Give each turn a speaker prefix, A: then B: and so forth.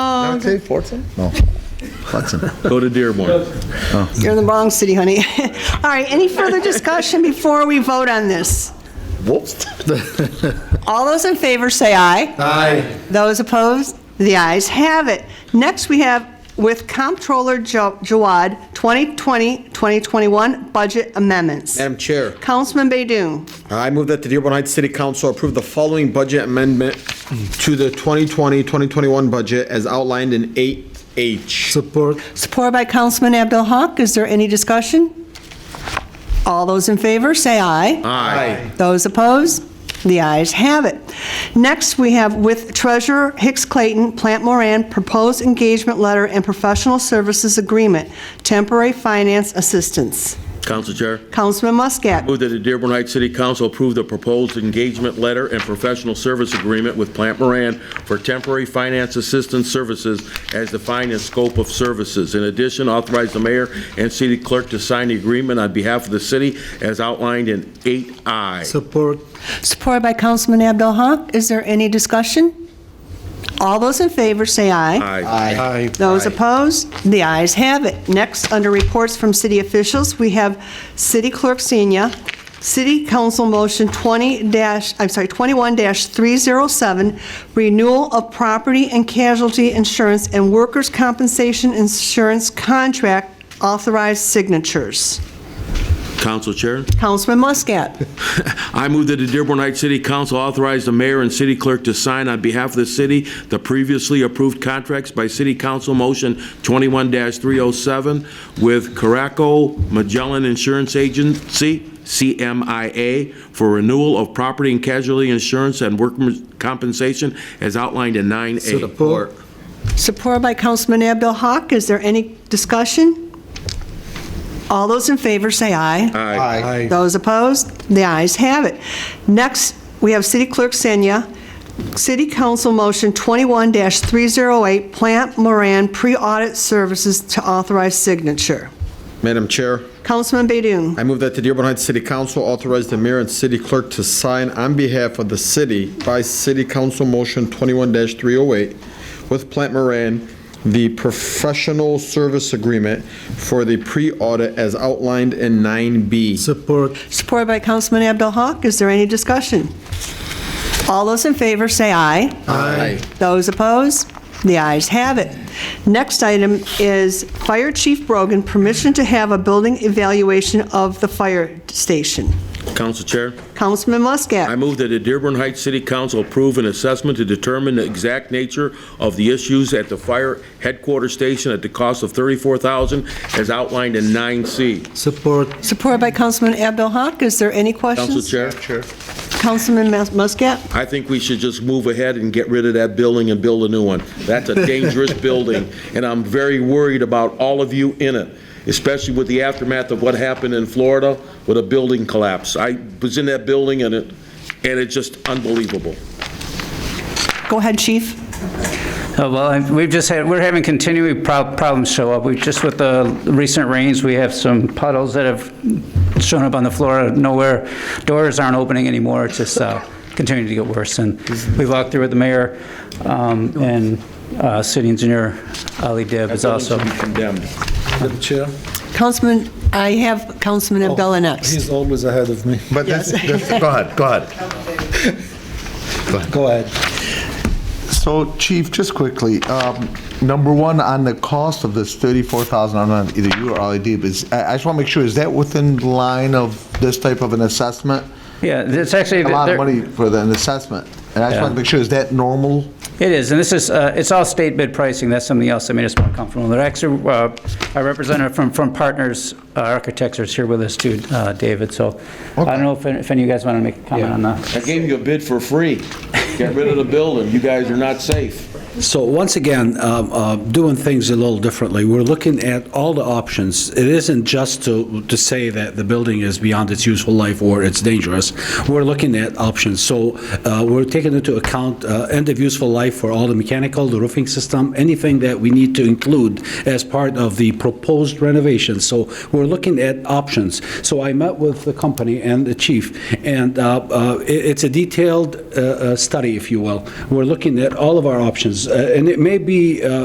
A: Bronx?
B: say Fortson? No, Hudson.
C: Go to Dearborn.
A: You're in the Bronx City, honey. All right, any further discussion before we vote on this?
B: Whoops.
A: All those in favor say aye.
B: Aye.
A: Those opposed? The ayes have it. Next, we have with Comptroller Jo- Jawad, 2020-2021 budget amendments.
D: Madam Chair,
A: Councilman Baydun.
D: I move that the Dearborn Heights City Council approve the following budget amendment to the 2020-2021 budget as outlined in 8H.
E: Support.
A: Supported by Councilman Abdul Haq. Is there any discussion? All those in favor, say aye.
D: Aye.
A: Those opposed? The ayes have it. Next, we have with Treasurer Hicks Clayton, Plant Moran, proposed engagement letter and professional services agreement, temporary finance assistance.
C: Council Chair,
A: Councilman Muscat.
C: move that the Dearborn Heights City Council approve the proposed engagement letter and professional service agreement with Plant Moran for temporary finance assistance services as defined in scope of services. In addition, authorize the mayor and city clerk to sign the agreement on behalf of the city as outlined in 8I.
E: Support.
A: Supported by Councilman Abdul Haq. Is there any discussion? All those in favor, say aye.
C: Aye.
E: Aye.
A: Those opposed? The ayes have it. Next, under reports from city officials, we have City Clerk Senior, City Council Motion 20 dash, I'm sorry, 21-307, renewal of property and casualty insurance and workers' compensation insurance contract authorized signatures.
C: Council Chair,
A: Councilman Muscat.
C: I move that the Dearborn Heights City Council authorize the mayor and city clerk to sign on behalf of the city the previously approved contracts by City Council Motion 21-307 with Caraco Magellan Insurance Agency, CMIA, for renewal of property and casualty insurance and workers' compensation as outlined in 9A.
E: Support.
A: Supported by Councilman Abdul Haq. Is there any discussion? All those in favor say aye.
C: Aye.
E: Aye.
A: Those opposed? The ayes have it. Next, we have City Clerk Senya, City Council Motion 21-308, Plant Moran Pre-Audit Services to Authorize Signature.
D: Madam Chair,
A: Councilman Baydun.
D: I move that the Dearborn Heights City Council authorize the mayor and city clerk to sign on behalf of the city by City Council Motion 21-308 with Plant Moran, the professional service agreement for the pre-audit as outlined in 9B.
E: Support.
A: Supported by Councilman Abdul Haq. Is there any discussion? All those in favor say aye.
D: Aye.
A: Those opposed? The ayes have it. Next item is Fire Chief Brogan, permission to have a building evaluation of the fire station.
C: Council Chair?
A: Councilman
C: I
A: Muscat.
C: move that the Dearborn Heights City Council approve an assessment to determine the exact nature of the issues at the fire headquarters station at the cost of $34,000 as outlined in 9C.
E: Support.
A: Supported by Councilman Abdul Haq. Is there any
C: Council
A: questions?
C: Chair,
A: Councilman Mus- Muscat.
C: I think we should just move ahead and get rid of that building and build a new one. That's a dangerous building, and I'm very worried about all of you in it, especially with the aftermath of what happened in Florida with a building collapse. I was in that building, and it, and it's just unbelievable.
A: Go ahead, Chief.
F: Oh, Well, I- we've just had, we're having continuing prob- problems show up. We, just with the recent rains, we have some puddles that have shown up on the floor out of nowhere. Doors aren't opening anymore, it's just uh, continuing to get worse. And we walked through with the mayor, um, and uh, city engineer Ali Dib is also.
C: That building should be condemned.
E: Madam Chair.
A: Councilman, I have Councilman Abdullah next.
E: He's always ahead of me.
B: But that's, that's, go ahead, go ahead.
E: Go ahead.
B: So Chief, just quickly, um, number one, on the cost of this 34,000, I don't know, either you or Ali Deeb, is, I I just want to make sure, is that within the line of this type of an assessment?
F: Yeah, it's actually.
B: A lot
F: they're-
B: of money for the- an assessment. And I just
F: Yeah.
B: want to make sure, is that normal?
F: It is, and this is, uh, it's all state bid pricing, that's something else that made us more comfortable. There actually, uh, our representative from, from Partners uh, Architects is here with us too, uh, David, so I don't know if, if any of you guys want to make a comment on that.
C: I gave you a bid for free. Get rid of the building. You guys are not safe.
G: So once again, um, uh, doing things a little differently, we're looking at all the options. It isn't just to, to say that the building is beyond its useful life or it's dangerous. We're looking at options. So uh, we're taking into account uh, end of useful life for all the mechanical, the roofing system, anything that we need to include as part of the proposed renovation. So we're looking at options. So I met with the company and the chief, and uh, uh, it- it's a detailed uh, uh, study, if you will. We're looking at all of our options, uh, and it may be uh,